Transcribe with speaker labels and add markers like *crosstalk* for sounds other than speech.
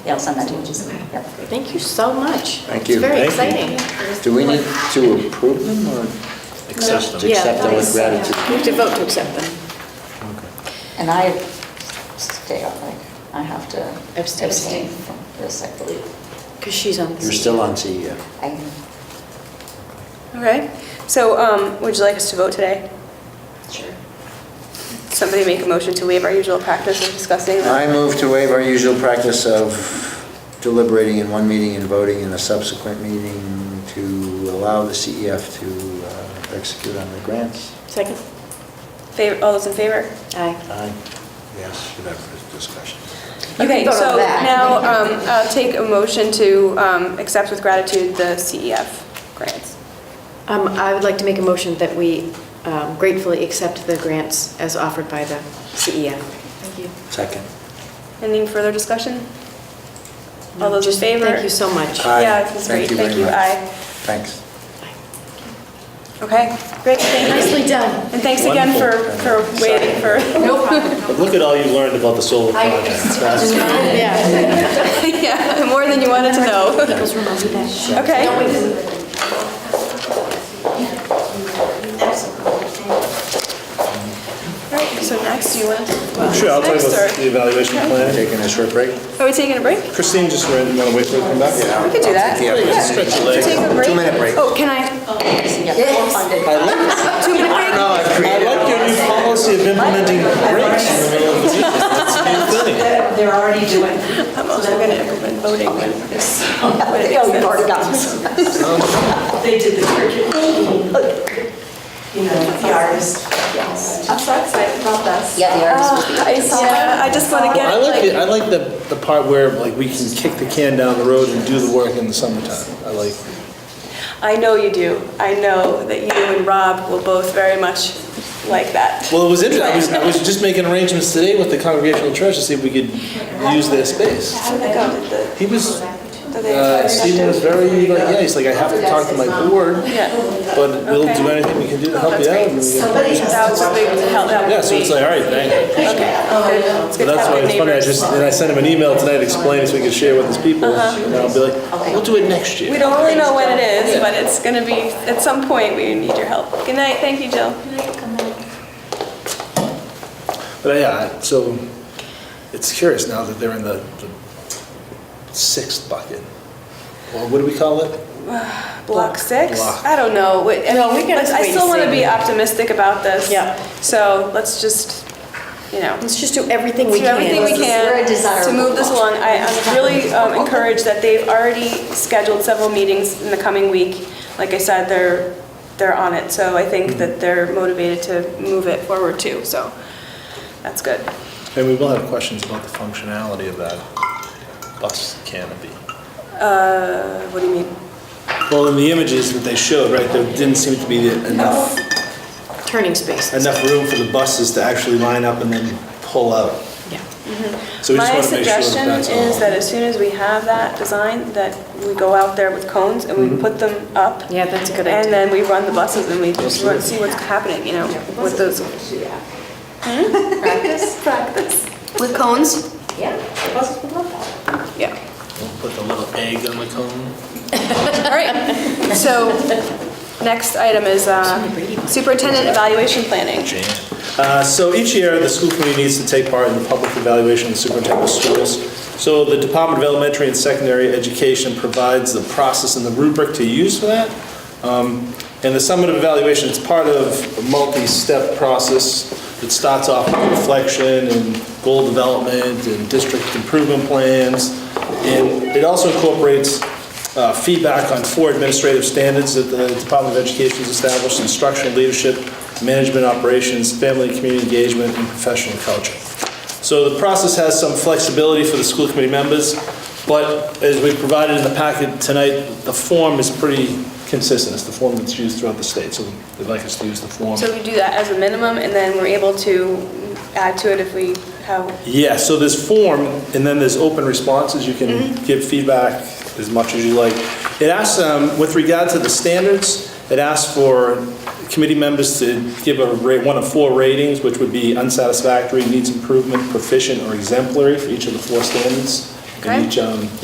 Speaker 1: Yeah, I'll send that to you. Just-
Speaker 2: Okay.
Speaker 1: Yep.
Speaker 3: Thank you so much.
Speaker 4: Thank you.
Speaker 3: It's very
Speaker 5: Thank you.
Speaker 3: exciting.
Speaker 4: Do we need to approve them or
Speaker 5: Accept
Speaker 4: to
Speaker 5: them.
Speaker 3: Yeah,
Speaker 4: accept them with
Speaker 2: that
Speaker 4: gratitude?
Speaker 2: was-
Speaker 3: We have to vote to accept them.
Speaker 1: And I stay on, like, I have to
Speaker 3: Abstain.
Speaker 1: abstain from this, I believe.
Speaker 3: Because she's on the.
Speaker 4: You're still on E CEO.
Speaker 1: I
Speaker 6: All right. So um, would you like us to vote today?
Speaker 1: Sure.
Speaker 6: Somebody make a motion to waive our usual practice of discussing
Speaker 4: I
Speaker 6: them?
Speaker 4: move to waive our usual practice of deliberating in one meeting and voting in a subsequent meeting to allow the CEF to uh, execute on the grants.
Speaker 3: Second?
Speaker 6: Favor- All those in favor?
Speaker 3: Aye.
Speaker 4: Aye. Yes, whatever discussion.
Speaker 3: You can
Speaker 6: Okay,
Speaker 3: vote on
Speaker 6: so
Speaker 3: that.
Speaker 6: now um, I'll take a motion to um, accept with gratitude the CEF grants.
Speaker 3: Um, I would like to make a motion that we um, gratefully accept the grants as offered by the E CEF.
Speaker 2: Thank you.
Speaker 4: Second.
Speaker 6: Any further discussion? All those in
Speaker 3: Just
Speaker 6: favor?
Speaker 3: Thank you so much.
Speaker 4: Aye.
Speaker 6: Yeah, this is
Speaker 4: Thank
Speaker 6: great.
Speaker 4: you very
Speaker 6: Thank you.
Speaker 4: much.
Speaker 6: Aye.
Speaker 4: Thanks.
Speaker 6: Okay, great. Thank you.
Speaker 3: Nicely done.
Speaker 6: And thanks again for, for waiting for,
Speaker 2: No problem.
Speaker 5: But look at all you learned about the solar
Speaker 2: I-
Speaker 5: project. That's-
Speaker 3: *laughs* Yeah.
Speaker 6: *laughs* yeah, more than you wanted to
Speaker 3: *laughs*
Speaker 6: know. Okay. All right, so next you want to... well,
Speaker 5: Sure, I'll tell you
Speaker 6: next,
Speaker 5: about the
Speaker 6: or-
Speaker 5: evaluation
Speaker 4: *laughs*
Speaker 5: plan.
Speaker 4: Taking a short break?
Speaker 6: Are we taking a break?
Speaker 5: Christine just ran, want to wait for her to come back?
Speaker 6: We could do that.
Speaker 4: Yeah,
Speaker 6: Yeah.
Speaker 5: stretch your legs.
Speaker 6: Take a break.
Speaker 4: Two-minute break.
Speaker 6: Oh, can I?
Speaker 1: Yes. funded.
Speaker 6: Two-minute break?
Speaker 4: No, I
Speaker 5: I
Speaker 4: created.
Speaker 5: like your new policy of implementing breaks in the middle of the meeting. That's a new thing.
Speaker 7: They're already doing.
Speaker 6: I'm also going to implement voting when this... when it
Speaker 1: *laughs*
Speaker 6: makes
Speaker 1: Oh, you've
Speaker 6: sense.
Speaker 1: already got this.
Speaker 7: They did the curriculum. You know, the artist.
Speaker 2: I'm so excited about this.
Speaker 1: Yeah, the artist will be.
Speaker 6: Uh, I yeah, I just want to get,
Speaker 5: I like, it-
Speaker 6: like,
Speaker 5: I like the, the part where like we can kick the can down the road and do the work in the summertime. I like,
Speaker 6: I know you do. I know that you and Rob will both very much like that.
Speaker 5: well, it was interesting, I was, I was just making arrangements today with the congregational church to see if we could use their space.
Speaker 6: I think I'll do the-
Speaker 5: He
Speaker 6: do
Speaker 5: was,
Speaker 6: they-
Speaker 5: uh, Stephen was very, like, yeah, he's like, I have to talk to my board,
Speaker 6: Yeah.
Speaker 5: but we'll do anything we can do to help you out. and we get-
Speaker 7: Somebody has
Speaker 6: That was a big help, that
Speaker 5: Yeah,
Speaker 6: was
Speaker 5: so it's like, all right, thank you.
Speaker 6: Okay. It's
Speaker 5: So
Speaker 6: good to
Speaker 5: that's
Speaker 6: have
Speaker 5: why
Speaker 6: good
Speaker 5: it's funny, I
Speaker 6: neighbors.
Speaker 5: just, and I sent him an email tonight explaining so we could share with his people. And I'll be like, we'll do it next year.
Speaker 6: Uh-huh. We don't really know when it is, but it's going to be, at some point, we need your help. Good night, thank you, Jill.
Speaker 5: But yeah, I- so it's curious now that they're in the the sixth bucket. Or what do we call it?
Speaker 6: Block six?
Speaker 5: Block.
Speaker 6: I don't know. Wait, I
Speaker 3: No,
Speaker 6: mean,
Speaker 3: we can
Speaker 6: let's- I
Speaker 3: wait and
Speaker 6: still want to
Speaker 3: see.
Speaker 6: be optimistic about this.
Speaker 3: Yeah.
Speaker 6: So let's just, you know,
Speaker 3: Let's just do everything we
Speaker 6: do
Speaker 3: can.
Speaker 6: everything we
Speaker 1: We're
Speaker 6: can
Speaker 1: a
Speaker 6: to
Speaker 1: desirable
Speaker 6: move this
Speaker 1: block.
Speaker 6: along. I- I'm really um, encouraged that they've already scheduled several meetings in the coming week. Like I said, they're, they're on it, so I think that they're motivated to move it forward too, so that's good.
Speaker 5: And we will have questions about the functionality of that bus canopy.
Speaker 6: Uh, What do you mean?
Speaker 5: Well, in the images that they showed, right, there didn't seem to be enough,
Speaker 3: Turning spaces.
Speaker 5: enough room for the buses to actually line up and then pull out.
Speaker 3: Yeah.
Speaker 5: So we just
Speaker 6: My
Speaker 5: want to make sure that
Speaker 6: suggestion
Speaker 5: that's all.
Speaker 6: is that as soon as we have that design, that we go out there with cones and
Speaker 5: Mm-hmm.
Speaker 6: we put them up.
Speaker 3: Yeah, that's a good
Speaker 6: And
Speaker 3: idea.
Speaker 6: then we run the buses and we just run- see what's happening, you know, with those.
Speaker 5: *laughs*
Speaker 2: Practice, practice.
Speaker 6: With cones?
Speaker 1: Yeah, the buses would love that.
Speaker 6: Yeah.
Speaker 5: We'll Put the little egg on the cone.
Speaker 6: *laughs* All right. So, next item is uh, superintendent evaluation planning.
Speaker 5: Uh, So each year, the school committee needs to take part in the public evaluation of the superintendent of schools. So the Department of Elementary and Secondary Education provides the process and the rubric to use for that. Um, And the summative evaluation, it's part of a multi-step process. It starts off with reflection and goal development and district improvement plans. And it also incorporates uh, feedback on four administrative standards that the Department of Education has established, instructional leadership, management operations, family and community engagement, and professional culture. So the process has some flexibility for the school committee members, but as we provided in the packet tonight, the form is pretty consistent. It's the form that's used throughout the state, so they'd like us to use the form.
Speaker 6: So we do that as a minimum and then we're able to add to it if we have
Speaker 5: Yeah, so there's form, and then there's open responses, you can give feedback as much as you like. It asks, um, with regard to the standards, it asks for committee members to give a rate, one of four ratings, which would be unsatisfactory, needs improvement, proficient, or exemplary for each of the four standards. And each, um,